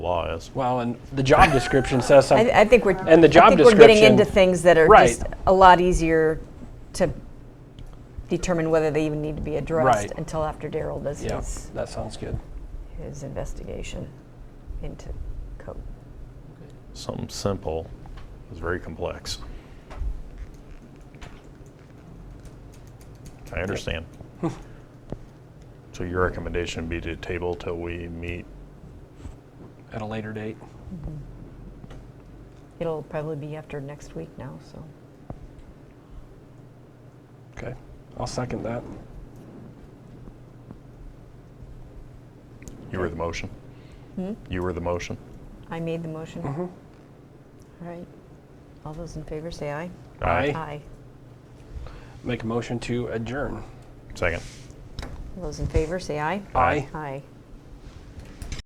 law is. Well, and the job description says I, something. I think we're Um, And the job I think we're getting description- into things that are Right. just a lot easier to determine whether they even need to be addressed Right. until after Daryl does Yeah, his, that sounds good. his investigation into code. Something simple is very complex. I understand. So your recommendation would be to table till we meet? At a later date. It'll probably be after next week now, so Okay. I'll second that. You were the motion? You were the motion? I made the motion. Mm-hmm. All right. All those in favor say aye. Aye. Aye. Make a motion to adjourn. Second. All those in favor say aye. Aye. Aye.